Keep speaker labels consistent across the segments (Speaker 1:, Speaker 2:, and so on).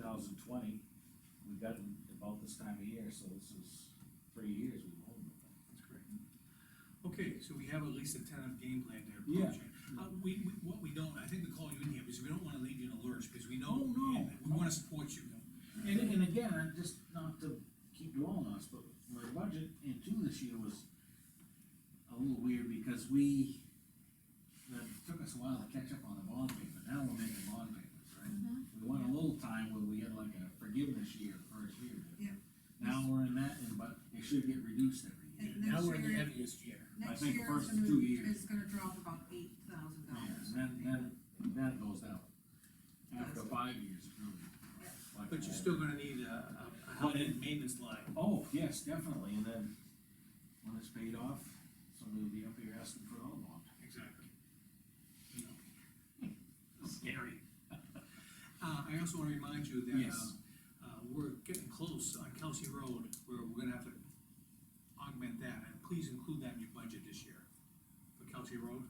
Speaker 1: thousand twenty, we got them about this time of year, so this is three years we've owned them.
Speaker 2: That's great. Okay, so we have at least a tentative game plan to
Speaker 1: Yeah.
Speaker 2: approach it. Uh, we, we, what we don't, I think we call you in here, because we don't wanna leave you in a lurch, because we know.
Speaker 1: Oh, no.
Speaker 2: and We wanna support you.
Speaker 1: And, and again, I just, not to keep dwelling on us, but my budget in two this year was a little weird because we, it took us a while to catch up on the bond payment, now we're making bond payments, right? We went a little time where we had like a forgiveness year, first year.
Speaker 3: Yeah.
Speaker 1: Now we're in that, and but it should get reduced every year.
Speaker 3: And next year,
Speaker 2: heaviest year.
Speaker 3: next
Speaker 1: think
Speaker 3: year
Speaker 1: first
Speaker 3: it's gonna,
Speaker 1: two
Speaker 3: be-
Speaker 1: years.
Speaker 3: it's gonna drop about eight thousand dollars.
Speaker 1: And then, then, then it goes down. After five years, it's really. like
Speaker 2: But you're
Speaker 1: that.
Speaker 2: still gonna need a, a, a
Speaker 1: But
Speaker 2: health
Speaker 1: it-
Speaker 2: and maintenance line.
Speaker 1: Oh, yes, definitely, and then when it's paid off, somebody will be up here asking for another one.
Speaker 2: Exactly. You know. Scary. Uh, I also wanna remind you that,
Speaker 1: Yes.
Speaker 2: uh, uh, we're getting close on Kelsey Road, where we're gonna have to augment that, and please include that in your budget this year, for Kelsey Road.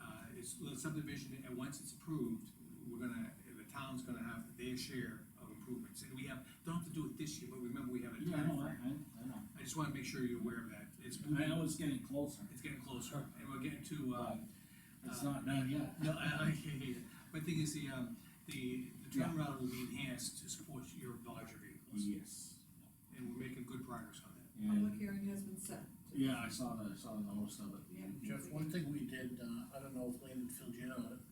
Speaker 2: Uh, it's the subdivision, and once it's approved, we're gonna, the town's gonna have their share of improvements, and we have, don't have to do it this year, but remember, we have a
Speaker 1: Yeah, I know, I,
Speaker 2: timeframe.
Speaker 1: I- I know.
Speaker 2: I just wanna make sure you're aware of that, it's
Speaker 1: I
Speaker 2: moving,
Speaker 1: know it's getting closer,
Speaker 2: it's getting closer, and we're getting to, uh,
Speaker 1: but it's not done yet.
Speaker 2: no, I, I hear you. My thing is the, um, the, the
Speaker 1: Yeah.
Speaker 2: turnaround will be enhanced to support your larger vehicles,
Speaker 1: Yes.
Speaker 4: Mm-hmm.
Speaker 2: and we're making good progress on that.
Speaker 1: And,
Speaker 3: Public hearing has been set.
Speaker 1: yeah, I saw the, I saw the host of it.
Speaker 3: Yeah.
Speaker 4: Jeff, one thing we did, uh, I don't know if Landon filled you in on it,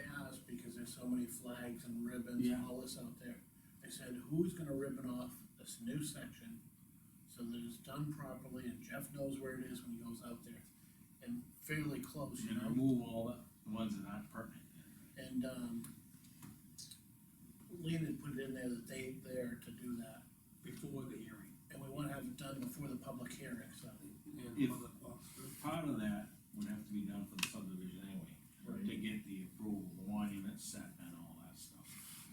Speaker 4: I asked because there's so many flags and ribbons and
Speaker 1: Yeah.
Speaker 4: all this out there. I said, who's gonna ribbon off this new section so that it's done properly and Jeff knows where it is when he goes out there? And fairly close, you
Speaker 1: And
Speaker 4: know,
Speaker 1: remove all the ones that aren't pertinent.
Speaker 4: and, um, Landon put it in there that they, there to do that,
Speaker 2: Before the hearing.
Speaker 4: and we wanna have it done before the public hearing, so.
Speaker 1: If- Part of that would have to be done for the subdivision anyway, to get the approval, the monument set and all that stuff.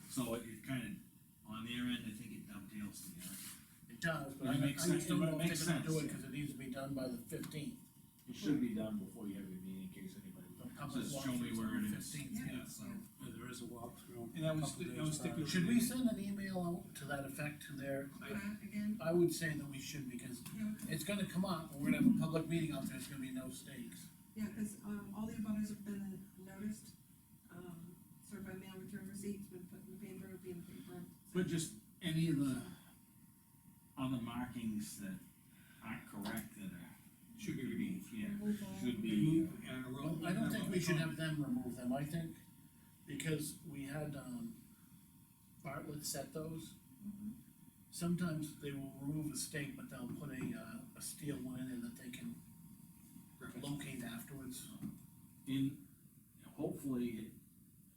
Speaker 1: So it it kind of, on their end, I think it dovetails together.
Speaker 4: It does, but
Speaker 1: It
Speaker 4: I, I
Speaker 1: makes sense,
Speaker 4: just don't
Speaker 1: but it
Speaker 4: know if
Speaker 1: makes
Speaker 4: they're gonna do
Speaker 1: sense.
Speaker 4: it, cause it needs to be done by the fifteenth.
Speaker 1: It should be done before you have your meeting, in case anybody. Says, show me where it is.
Speaker 2: Yeah, so,
Speaker 5: There is a walkthrough.
Speaker 2: and that was,
Speaker 5: Couple
Speaker 2: that
Speaker 5: days
Speaker 2: was stipulated.
Speaker 5: prior.
Speaker 4: Should we send an email out to that effect to their,
Speaker 3: Uh, again,
Speaker 4: I would say that we should, because
Speaker 3: yeah,
Speaker 4: it's gonna come up, and we're gonna have a public meeting out there, it's gonna be no stakes.
Speaker 3: yeah, cause, um, all the abutters have been noticed, um, served by mail return receipts, been put in the paper, be in the paper.
Speaker 1: But just any of the other markings that aren't correct that are.
Speaker 2: Should be removed.
Speaker 1: Yeah,
Speaker 3: Remove all-
Speaker 1: should be,
Speaker 2: Remove,
Speaker 1: uh,
Speaker 2: uh,
Speaker 4: Well,
Speaker 2: road.
Speaker 4: I don't think we should have them remove them, I think, because we had, um, Bartlett set those.
Speaker 3: Mhm.
Speaker 4: Sometimes they will remove a stake, but they'll put a, uh, a steel one in there that they can locate afterwards.
Speaker 1: in, hopefully, it,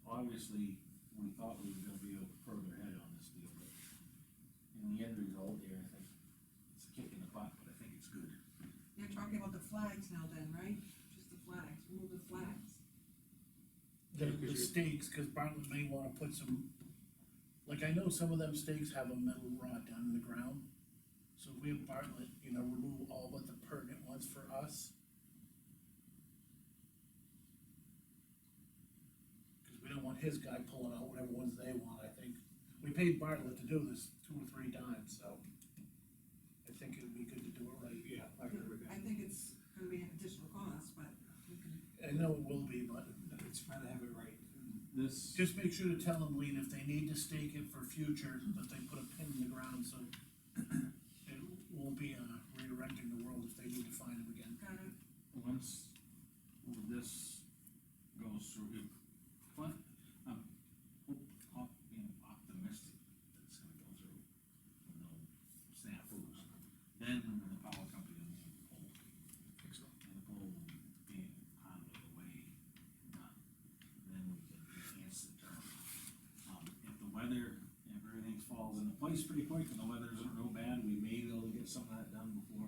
Speaker 1: obviously, we thought we were gonna be able to further ahead on this deal, but in the end result here, I think it's a kick in the butt, but I think it's good.
Speaker 3: You're talking about the flags now then, right? Just the flags, remove the flags.
Speaker 4: The,
Speaker 5: Yeah, 'cause
Speaker 4: the
Speaker 5: you're-
Speaker 4: stakes, cause Bartlett may wanna put some, like, I know some of them stakes have a metal rod down in the ground. So if we have Bartlett, you know, remove all but the pertinent ones for us. Cause we don't want his guy pulling out whatever ones they want, I think, we paid Bartlett to do this two or three times, so. I think it'd be good to do it right.
Speaker 2: Yeah, I agree with
Speaker 3: I
Speaker 2: that.
Speaker 3: think it's gonna be an additional cost, but we can,
Speaker 4: I know it will be, but
Speaker 2: It's trying to have it right.
Speaker 1: This.
Speaker 4: Just make sure to tell them, Lean, if they need to stake it for future, that they put a pin in the ground, so it won't be, uh, redirecting the world if they need to find them again.
Speaker 3: kind of,
Speaker 1: once this goes through, if, but I'm hope, op, you know, optimistic that it's gonna go through. with No snafus, then the power company will need the pole. And the pole will be out of the way, and not, then we can enhance the term. Um, if the weather, if everything falls into place pretty quick and the weather isn't real bad, we may be able to get some of that done before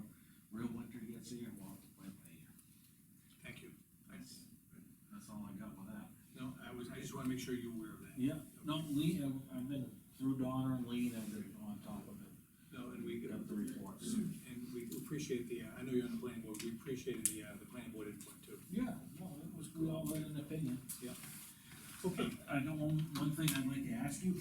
Speaker 1: real winter gets here, well, wait by year.
Speaker 2: Thank you. I,
Speaker 1: That's all I got with that.
Speaker 2: no, I was, I just wanna make sure you're aware of that.
Speaker 1: Yeah, no, Lee, uh, I've, I've been through Donna and Lee, and I've been on top of it,
Speaker 2: No, and we,
Speaker 1: get up the reports.
Speaker 2: and we appreciate the, uh, I know you're on the planning board, we appreciate the, uh, the planning board input too.
Speaker 1: Yeah, no, it was good, all in an opinion.
Speaker 2: Okay,